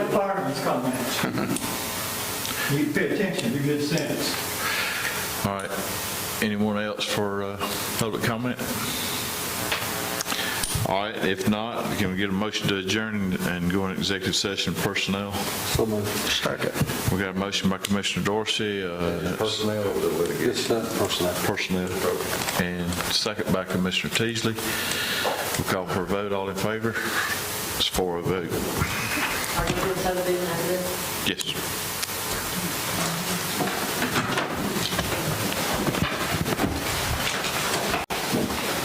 You pay attention to good sense. All right. Anyone else for uh, public comment? All right, if not, can we get a motion to adjourn and go into executive session personnel? So moved. Second. We got a motion by Commissioner Dorsey, uh, Personnel or litigation? It's not personnel. personnel, and second by Commissioner Teasley. We'll call for a vote, all in favor? It's four of a vote. Are you going to tell them how to do it? Yes.